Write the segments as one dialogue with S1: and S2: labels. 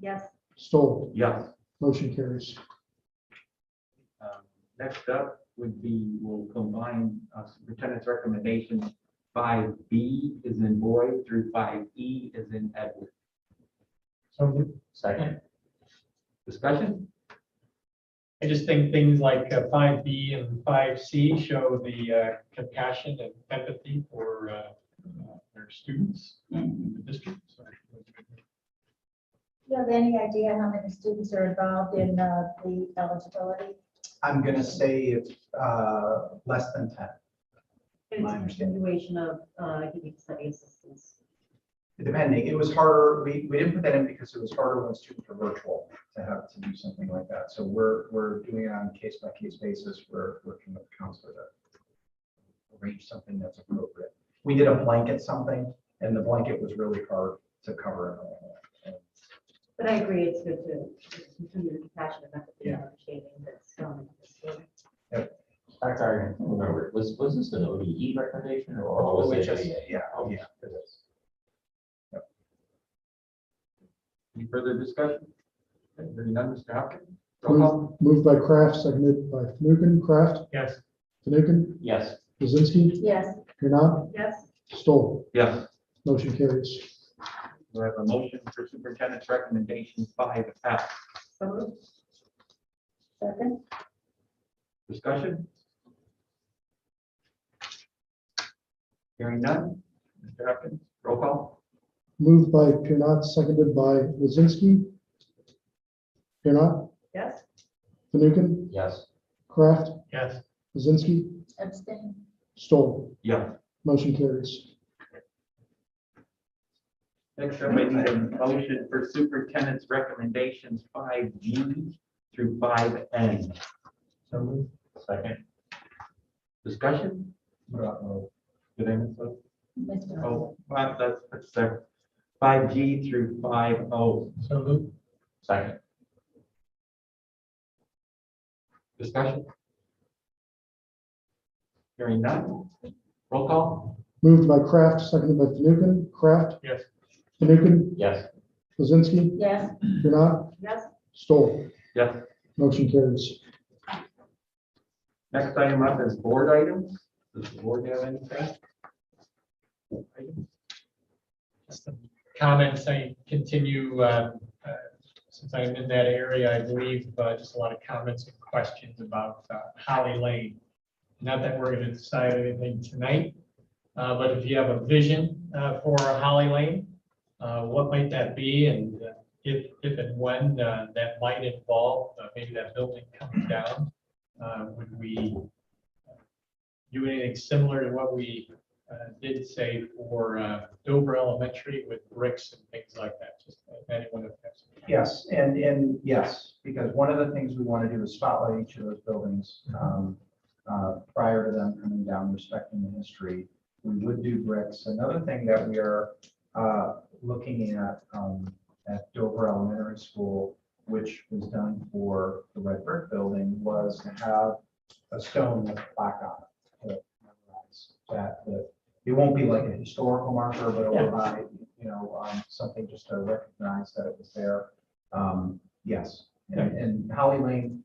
S1: Yes.
S2: Stoll,
S3: Yes.
S2: motion carries.
S3: Um, Next up would be, we'll combine uh, superintendent's recommendations five B is in boy through five E is in Edward.
S4: So moved.
S3: Second. Discussion?
S4: I just think things like uh, five B and five C show the uh, compassion and empathy for uh, uh, their students and the district. So,
S1: Do you have any idea how many students are involved in uh, the eligibility?
S5: I'm gonna say it's uh, less than ten.
S6: It's
S5: My
S6: a
S5: understanding.
S6: continuation of uh, giving study assistance.
S5: Depending, it was harder, we, we didn't put that in because it was harder when students were virtual to have to do something like that. So we're, we're doing it on a case by case basis. We're working with the counselor to arrange something that's appropriate. We did a blanket something and the blanket was really hard to cover. everything.
S6: But I agree, it's good to continue the compassion and empathy and
S5: Yeah.
S6: understanding that's um,
S7: I'm sorry, I can't remember, was, was this an ODE recommendation or was it just?
S5: OHSA, Yeah, oh, yeah. it is.
S3: Any further discussion? Okay, Hearing none, Mr. Hopkins? Roll call.
S2: Moved moved by Kraft, seconded by Fanukin, Kraft,
S4: Yes,
S2: Fanukin,
S7: Yes,
S2: Krasinski,
S1: Yes.
S2: Kieran,
S1: Yes.
S2: Stoll,
S3: Yes.
S2: motion carries.
S3: We have a motion for superintendent's recommendation five F.
S1: So moved. Second?
S3: Discussion? Hearing none, Mr. Hopkins? Roll call.
S2: Moved by Kieran, seconded by Krasinski. Kieran,
S1: Yes.
S2: Fanukin,
S7: yes,
S2: Kraft,
S4: yes,
S2: Krasinski,
S1: Abstain?
S2: Stoll,
S3: Yes.
S2: motion carries.
S3: Next up, I need a motion for superintendent's recommendations five G through five N.
S5: So moved.
S7: second,
S3: Discussion?
S5: What about move?
S3: Did I miss that?
S1: Mr.
S3: Oh, five, that's, that's there. Five G through five O.
S4: so moved.
S7: second,
S3: Discussion? Hearing none. Roll call?
S2: Moved by Kraft, seconded by Fanukin, Kraft.
S4: Yes.
S2: Fanukin,
S7: yes,
S2: Krasinski,
S1: Yes.
S2: Kieran,
S1: Yes.
S2: Stoll,
S3: Yes.
S2: motion carries.
S3: Next item up is board items. Does the board have anything?
S4: Just some Comments, I continue, uh, uh, since I'm in that area, I believe, uh, just a lot of comments and questions about uh, Holly Lane. Not that we're going to decide anything tonight, uh, but if you have a vision uh, for Holly Lane, uh, what might that be? And uh, if, if and when uh, that might involve, uh, maybe that building coming down, uh, would we uh, do anything similar to what we uh, did say for uh, Dover Elementary with bricks and things like that, just if anyone has.
S5: Yes, and, and yes, because one of the things we want to do is spotlight each of those buildings um, uh, prior to them coming down, respecting the history. We would do bricks. Another thing that we are uh, looking at um, at Dover Elementary School, which was done for the red brick building, was to have a stone with a plaque on it. to memorialize That, that, it won't be like a historical marker, but it'll provide, you know, um, something just to recognize that it was there. Um, yes, and, and Holly Lane,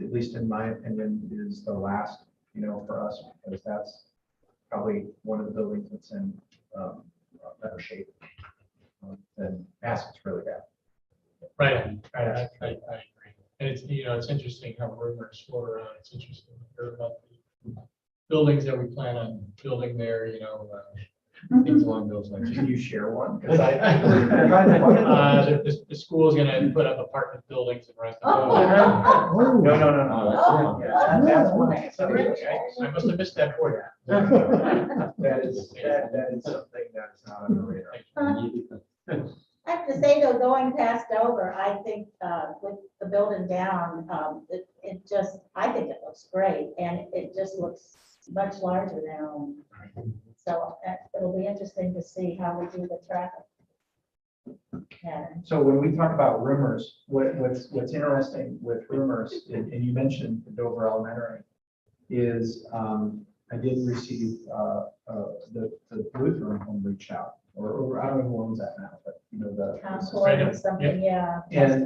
S5: at least in my opinion, is the last, you know, for us, because that's probably one of the buildings that's in, um, uh, better shape um, than Bassett's really bad.
S4: Right, right, I, I, I agree. And it's, you know, it's interesting how rumors float around, it's interesting to hear about the buildings that we plan on building there, you know, uh, things along those lines.
S5: Can you share one? 'Cause I- I'm trying to
S4: Uh,
S5: find one.
S4: The, the- the school's gonna put up apartment buildings and rent them out.
S1: Oh.
S2: Oh.
S5: No, no, no, no.
S7: oh, that's the one.
S5: Yeah, that- That's one. I can tell you.
S4: I must have missed that for
S5: That is, that, that is something that is not on the radar.
S1: I have to say though, going past Dover, I think uh, with the building down, um, it, it just, I think it looks great. And it just looks much larger now. So uh, it'll be interesting to see how we do the traffic. pattern.
S5: So when we talk about rumors, what, what's, what's interesting with rumors, and, and you mentioned Dover Elementary, is, um, I did receive, uh, uh, the, the Lutheran home reach out or, or I don't know who owns that now, but you know, the.
S1: Concord or something, yeah.
S5: And